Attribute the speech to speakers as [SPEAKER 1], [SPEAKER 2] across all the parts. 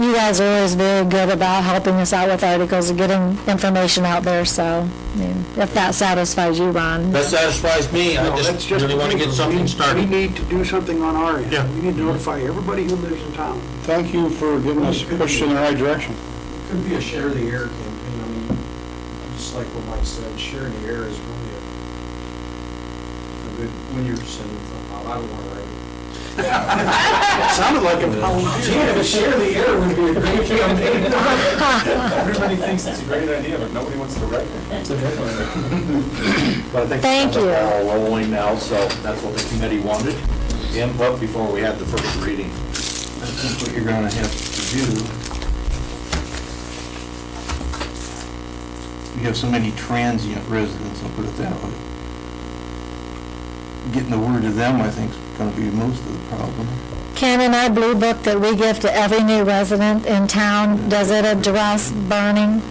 [SPEAKER 1] you guys are always very good about helping us out with articles and getting information out there, so I mean, if that satisfies you, Ron.
[SPEAKER 2] That satisfies me, I
[SPEAKER 3] No, that's
[SPEAKER 2] just really want to get
[SPEAKER 3] we-
[SPEAKER 2] something
[SPEAKER 3] We
[SPEAKER 2] started.
[SPEAKER 3] need to do something on our end.
[SPEAKER 2] Yeah.
[SPEAKER 3] We need to notify everybody who lives in town.
[SPEAKER 4] Thank you for giving us a push in the right direction.
[SPEAKER 5] Could be a share the air campaign, I mean, just like what Mike said, sharing the air is really a, a good, when you're sending something out, I would wanna write it.
[SPEAKER 3] It sounded like a
[SPEAKER 5] Yeah,
[SPEAKER 3] volunteer.
[SPEAKER 5] but share the air would be a great campaign.
[SPEAKER 6] Everybody thinks it's a great idea, but nobody wants to write it.
[SPEAKER 2] But I think
[SPEAKER 1] Thank
[SPEAKER 2] we've got
[SPEAKER 1] you.
[SPEAKER 2] the ball rolling now, so that's what the committee wanted, input before we had the first reading.
[SPEAKER 5] That's what you're gonna have to do. You have so many transient residents, I'll put it that way. Getting the word to them, I think, is gonna be most of the problem.
[SPEAKER 1] Ken and I blue book that we give to every new resident in town, does it address burning?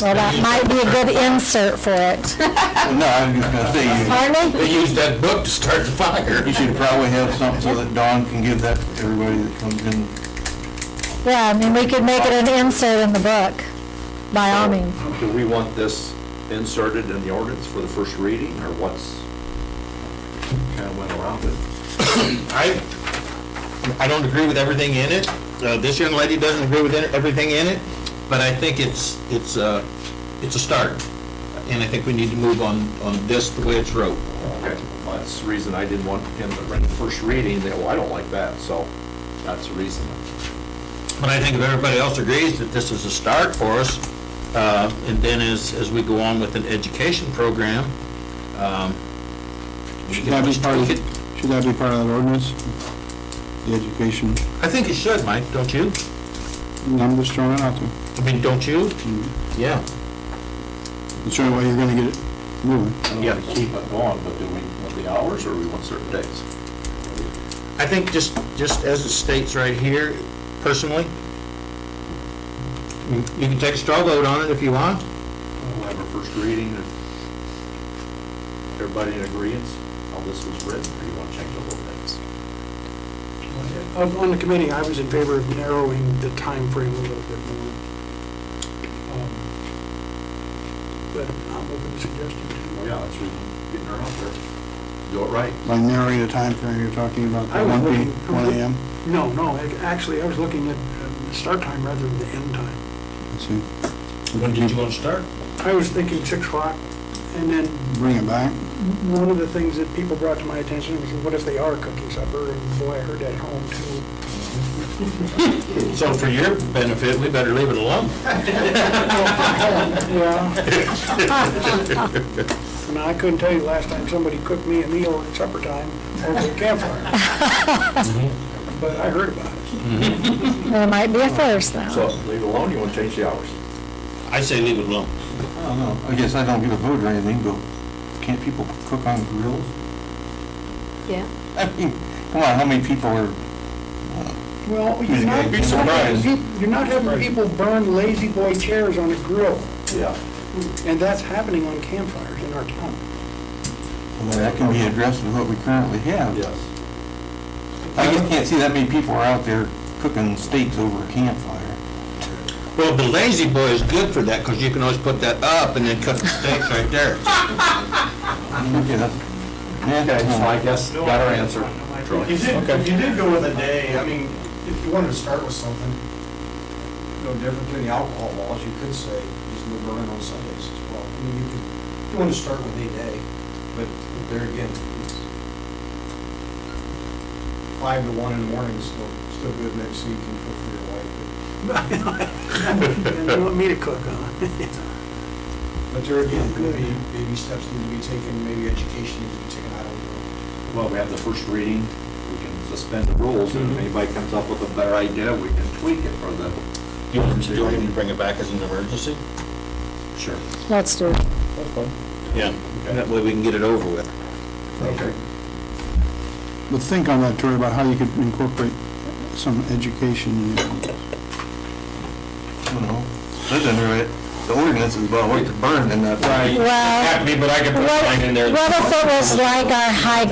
[SPEAKER 1] Well, that might be a good insert for it,
[SPEAKER 5] Well, No, I was just gonna say, you-
[SPEAKER 1] aren't we?
[SPEAKER 2] They used that book to start the fire.
[SPEAKER 5] you should probably have something so that Dawn can give that to everybody that comes in.
[SPEAKER 1] Yeah, I mean, we could make it an insert in the book, by all means.
[SPEAKER 2] Do we want this inserted in the ordinance for the first reading, or what's, kind of went around it? I, I don't agree with everything in it. Uh, This young lady doesn't agree with it- everything in it, but I think it's, it's a, it's a start. And I think we need to move on, on this the way it's wrote. That's the reason I didn't want him to run the first reading, that, well, I don't like that, so that's the reason. But I think if everybody else agrees that this is a start for us, uh, and then as, as we go on with an education program, um, we
[SPEAKER 4] Should
[SPEAKER 2] can
[SPEAKER 4] that be
[SPEAKER 2] always
[SPEAKER 4] part of,
[SPEAKER 2] tweak it.
[SPEAKER 4] should that be part of the ordinance? The education,
[SPEAKER 2] I think it should, Mike, don't you?
[SPEAKER 4] I'm just throwing it out there.
[SPEAKER 2] I mean, don't you? Yeah.
[SPEAKER 4] It's the only way you're gonna get it moving.
[SPEAKER 2] Yeah, to keep it going, but do we want the hours or we want certain days? I think just, just as it states right here, personally, you you can take a straw vote on it if you want. We'll have our first reading if everybody in agreement, how this was written, or you want to change the whole things?
[SPEAKER 3] Of- On the committee, I was in favor of narrowing the time frame a little bit more. Um, But I'm open to suggestions.
[SPEAKER 2] Yeah, that's really getting her out there. Do it right.
[SPEAKER 4] By narrowing the time frame you're talking about, the
[SPEAKER 3] I was
[SPEAKER 4] one P,
[SPEAKER 3] looking-
[SPEAKER 4] one AM,
[SPEAKER 3] No, no, ac- actually, I was looking at um, the start time rather than the end time.
[SPEAKER 4] let's see.
[SPEAKER 2] When did you want to start?
[SPEAKER 3] I was thinking six o'clock, and then
[SPEAKER 4] Bring it back.
[SPEAKER 3] one of the things that people brought to my attention was, what if they are cooking supper? And boy, I heard that at home too.
[SPEAKER 2] So for your benefit, we better leave it alone.
[SPEAKER 3] Yeah. And I couldn't tell you the last time somebody cooked me a meal at supper time over the campfire. But I heard about it.
[SPEAKER 1] There might be a first, though.
[SPEAKER 2] leave it alone, you want to change the hours? I say leave it alone.
[SPEAKER 5] I don't know, I guess I don't get a vote or anything, but can't people cook on grills?
[SPEAKER 1] Yeah.
[SPEAKER 5] I mean, come on, how many people are,
[SPEAKER 3] Well,
[SPEAKER 5] you're not- You'd be surprised.
[SPEAKER 3] You're not having people burn lazy boy chairs on a grill,
[SPEAKER 2] Yeah.
[SPEAKER 3] and that's happening on campfires in our town.
[SPEAKER 5] well, that can be addressed with what we currently have.
[SPEAKER 2] Yes.
[SPEAKER 5] I just can't see that many people are out there cooking steaks over a campfire.
[SPEAKER 2] Well, the lazy boy is good for that, because you can always put that up and then cut the steaks right there.
[SPEAKER 5] Okay,
[SPEAKER 2] guess got our answer.
[SPEAKER 6] You did, you did go with a day, I mean,
[SPEAKER 5] If you wanted to start with something,
[SPEAKER 7] no different than the alcohol laws, you could say, just no burning on Sundays as well. I mean, you could, if you want to start with a day, but there again, it's five to one in the morning is still, still good next so you can cook for your wife.
[SPEAKER 3] And you want me to cook, huh?
[SPEAKER 7] But- But there again, maybe, baby steps need to be taken, maybe education needs to be taken, I don't know.
[SPEAKER 2] Well, we have the first reading, we can suspend the rules, and if anybody comes up with a better idea, we can tweak it for the. Do you want me to bring it back as an emergency? Sure.
[SPEAKER 1] Let's do it.
[SPEAKER 2] Yeah, that way we can get it over with.
[SPEAKER 7] Okay.
[SPEAKER 4] But think on that, Tori, about how you could incorporate some education in it.
[SPEAKER 5] I don't know, that's under it, the ordinance is about what to burn and that. Right.
[SPEAKER 1] Well,
[SPEAKER 2] but I can
[SPEAKER 1] what what if it was like our high